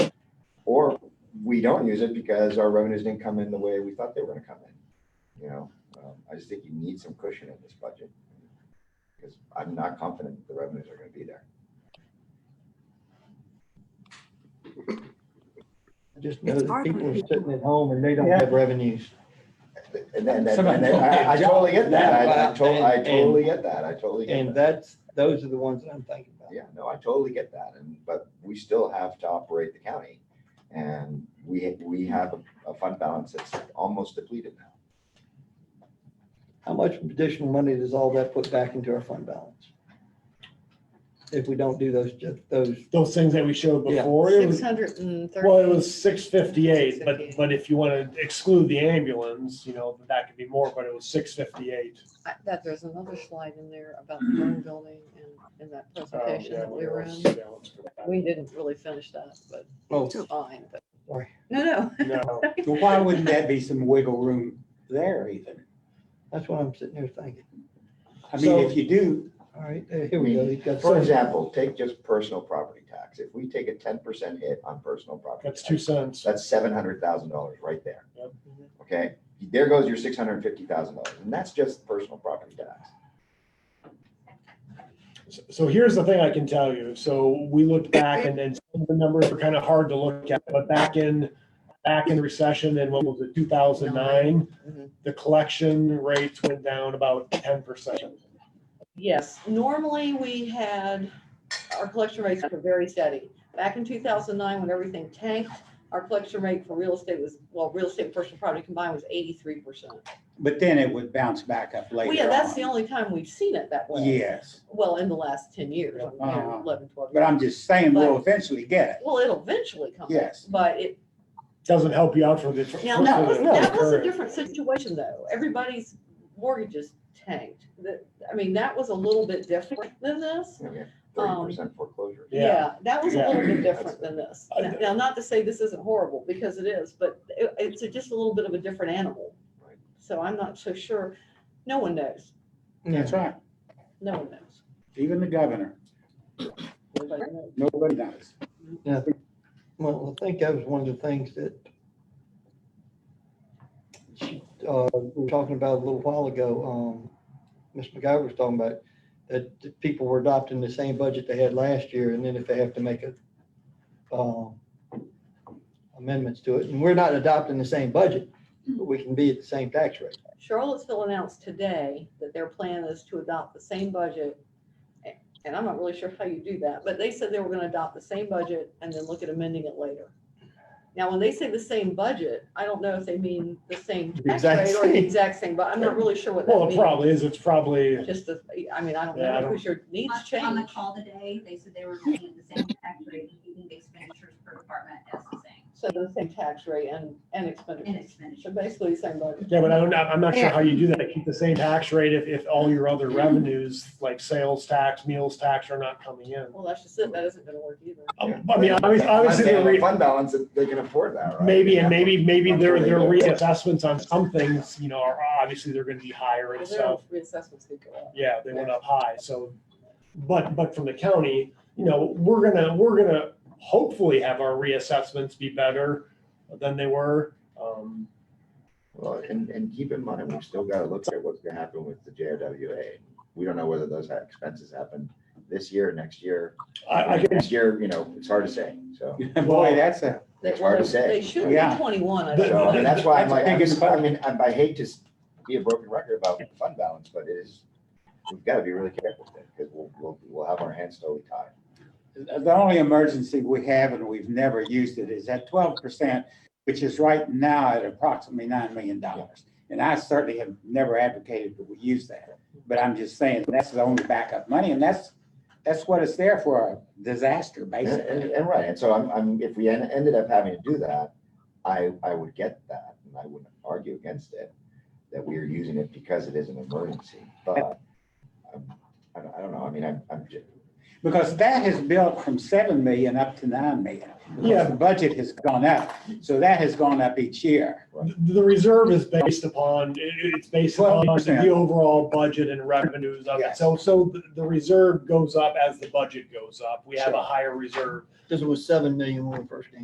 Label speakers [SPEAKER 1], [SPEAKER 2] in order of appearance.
[SPEAKER 1] we don't use it because our revenues didn't come in the way we thought they were gonna come in. You know, um, I just think you need some cushion in this budget. Because I'm not confident the revenues are gonna be there.
[SPEAKER 2] Just know
[SPEAKER 3] It's
[SPEAKER 2] that
[SPEAKER 3] hard
[SPEAKER 2] people
[SPEAKER 3] when
[SPEAKER 2] are
[SPEAKER 3] people-
[SPEAKER 2] sitting at home and they don't
[SPEAKER 4] Yeah.
[SPEAKER 2] have revenues.
[SPEAKER 1] And then, and then-
[SPEAKER 4] Somebody
[SPEAKER 1] and then- I, I totally get that. I I totally, I totally get that. I totally get that.
[SPEAKER 2] And that's, those are the ones that I'm thinking about.
[SPEAKER 1] Yeah, no, I totally get that, and, but we still have to operate the county. And we, we have a- a fund balance that's almost depleted now.
[SPEAKER 2] How much additional money does all that put back into our fund balance? If we don't do those, ju- those,
[SPEAKER 4] Those things that we showed
[SPEAKER 2] Yeah.
[SPEAKER 4] before, it
[SPEAKER 3] Six
[SPEAKER 4] was,
[SPEAKER 3] hundred and thirty.
[SPEAKER 4] well, it was six fifty-eight, but,
[SPEAKER 3] 658.
[SPEAKER 4] but if you want to exclude the ambulance, you know, that could be more, but it was six fifty-eight.
[SPEAKER 3] I- That there's another slide in there about the burn building and in
[SPEAKER 4] Oh,
[SPEAKER 3] that
[SPEAKER 4] um,
[SPEAKER 3] presentation that we were in. We didn't really finish that, but
[SPEAKER 2] oh,
[SPEAKER 3] it's fine, but.
[SPEAKER 2] Sorry.
[SPEAKER 3] No, no.
[SPEAKER 4] No,
[SPEAKER 5] But why wouldn't that be some wiggle room there, Ethan?
[SPEAKER 2] that's what I'm sitting here thinking.
[SPEAKER 5] I mean, if you do,
[SPEAKER 2] All right, uh, here we go. He's got
[SPEAKER 1] For
[SPEAKER 2] some-
[SPEAKER 1] example, take just personal property tax. If we take a ten percent hit on personal property.
[SPEAKER 4] that's two
[SPEAKER 1] tax,
[SPEAKER 4] cents.
[SPEAKER 1] That's seven hundred thousand dollars right there.
[SPEAKER 4] Yep.
[SPEAKER 1] Okay, there goes your six hundred and fifty thousand dollars, and that's just personal property tax.
[SPEAKER 4] So- So here's the thing I can tell you. So we looked back and then some of the numbers were kind of hard to look at, but back in, back in the recession and what was it, two thousand nine?
[SPEAKER 3] Mhm.
[SPEAKER 4] The collection rates went down about ten percent.
[SPEAKER 3] Yes, normally we had, our collection rates were very steady. Back in two thousand nine, when everything tanked, our collection rate for real estate was, well, real estate and personal property combined was eighty-three percent.
[SPEAKER 5] but then it would bounce back up
[SPEAKER 3] Well,
[SPEAKER 5] later on.
[SPEAKER 3] yeah, that's the only time we've seen it that way.
[SPEAKER 5] Yes,
[SPEAKER 3] Well, in the last ten years, you know,
[SPEAKER 5] Uh-huh.
[SPEAKER 3] eleven, twelve.
[SPEAKER 5] but I'm just saying, we'll eventually get
[SPEAKER 3] Well, it'll eventually come.
[SPEAKER 5] Yes.
[SPEAKER 3] But it,
[SPEAKER 4] Doesn't help you out for the.
[SPEAKER 3] Now, that
[SPEAKER 4] for
[SPEAKER 3] was,
[SPEAKER 4] the-
[SPEAKER 3] that was a
[SPEAKER 4] current.
[SPEAKER 3] different situation though. Everybody's mortgages tanked. That, I mean, that was a little bit different than this. Um,
[SPEAKER 1] Thirty percent foreclosure.
[SPEAKER 4] Yeah.
[SPEAKER 3] Yeah, that was a little bit
[SPEAKER 1] Yeah.
[SPEAKER 3] different than this.
[SPEAKER 4] I
[SPEAKER 3] Now-
[SPEAKER 4] know.
[SPEAKER 3] Now, not to say this isn't horrible, because it is, but it, it's just a little bit of a different animal.
[SPEAKER 1] Right.
[SPEAKER 3] So I'm not so sure. No one knows.
[SPEAKER 5] it. That's right.
[SPEAKER 3] No one knows.
[SPEAKER 5] Even the governor,
[SPEAKER 3] Nobody knows.
[SPEAKER 5] nobody knows.
[SPEAKER 2] Well, I think that was one of the things that she, uh, we were talking about a little while ago, um, Ms. McGyver was talking about that the people were adopting the same budget they had last year, and then if they have to make a, um, amendments to it, and we're not adopting the same budget, but we can be at the same tax rate.
[SPEAKER 3] Charlottesville announced today that their plan is to adopt the same budget. a- And I'm not really sure how you do that, but they said they were gonna adopt the same budget and then look at amending it later. Now, when they say the same budget, I don't know if they mean the same
[SPEAKER 2] The
[SPEAKER 3] tax
[SPEAKER 2] exact
[SPEAKER 3] rate or the
[SPEAKER 2] same.
[SPEAKER 3] exact same, but I'm not really sure what
[SPEAKER 4] Well,
[SPEAKER 3] that
[SPEAKER 4] it
[SPEAKER 3] means.
[SPEAKER 4] probably is. It's probably,
[SPEAKER 3] Just, the- I mean, I don't
[SPEAKER 4] Yeah, I
[SPEAKER 3] know,
[SPEAKER 4] don't-
[SPEAKER 3] because your needs
[SPEAKER 6] On- On the
[SPEAKER 3] change.
[SPEAKER 6] call today, they said they were looking at the same tax rate, including the expenditures per department as the same,
[SPEAKER 3] So the same tax rate and, and
[SPEAKER 6] and
[SPEAKER 3] expenditures. So
[SPEAKER 6] expenditures.
[SPEAKER 3] basically the same budget.
[SPEAKER 4] yeah, but I don't, I'm not sure how you do that. Keep the same tax rate if, if all your other revenues, like sales tax, meals tax are not coming in.
[SPEAKER 3] Well, that's just it. That isn't gonna work either.
[SPEAKER 4] Um, I mean, obviously, obviously,
[SPEAKER 1] Unless
[SPEAKER 4] they're
[SPEAKER 1] they have a
[SPEAKER 4] re-
[SPEAKER 1] Fund balance, they can afford that, right?
[SPEAKER 4] maybe, and maybe, maybe
[SPEAKER 1] I'm sure
[SPEAKER 4] their,
[SPEAKER 1] they
[SPEAKER 4] their
[SPEAKER 1] do.
[SPEAKER 4] reassessments on some things, you know, are, obviously, they're gonna be higher and
[SPEAKER 3] Well,
[SPEAKER 4] stuff.
[SPEAKER 3] their Reassessments could go up.
[SPEAKER 4] Yeah, they went up high, so, but, but from the county, you know, we're gonna, we're gonna hopefully have our reassessments be better than they were. Um,
[SPEAKER 1] Well, and, and keep in mind, we've still gotta look at what's gonna happen with the JRWA. We don't know whether those ha- expenses happen this year, next year.
[SPEAKER 4] I, I can,
[SPEAKER 1] Next year, you know, it's hard to say, so.
[SPEAKER 5] Boy, that's a,
[SPEAKER 3] They-
[SPEAKER 1] It's hard to say.
[SPEAKER 3] They should be
[SPEAKER 5] Yeah.
[SPEAKER 3] twenty-one. I
[SPEAKER 4] The-
[SPEAKER 1] So, I mean,
[SPEAKER 3] think.
[SPEAKER 1] that's why I'm
[SPEAKER 5] That's a
[SPEAKER 1] like, I'm
[SPEAKER 5] big
[SPEAKER 1] just- I mean, I I hate to s- be a broken record about fund balance, but it is, we've gotta be really careful with it, because we'll, we'll, we'll have our hands totally tied.
[SPEAKER 5] the only emergency we have and we've never used it is that twelve percent, which is right now at approximately nine million dollars. And I certainly have never advocated that we use that, but I'm just saying that's the only backup money and that's, that's what it's there for, a disaster,
[SPEAKER 1] And, and,
[SPEAKER 5] basically.
[SPEAKER 1] and right, and so I'm, I'm, if we en- ended up having to do that, I, I would get that, and I wouldn't argue against it, that we are using it because it is an emergency, but um, I don't, I don't know, I mean, I'm, I'm just,
[SPEAKER 5] Because that has built from seven million up to nine million.
[SPEAKER 4] Yeah.
[SPEAKER 5] Because the budget has gone up, so that has gone up each year.
[SPEAKER 4] the, the reserve is based upon, it- it's based upon
[SPEAKER 5] 12%.
[SPEAKER 4] the overall budget and revenues of it.
[SPEAKER 5] Yes.
[SPEAKER 4] So, so the- the reserve goes up as the budget goes up. We have a
[SPEAKER 5] Sure.
[SPEAKER 4] higher reserve.
[SPEAKER 2] This was seven million when we first came.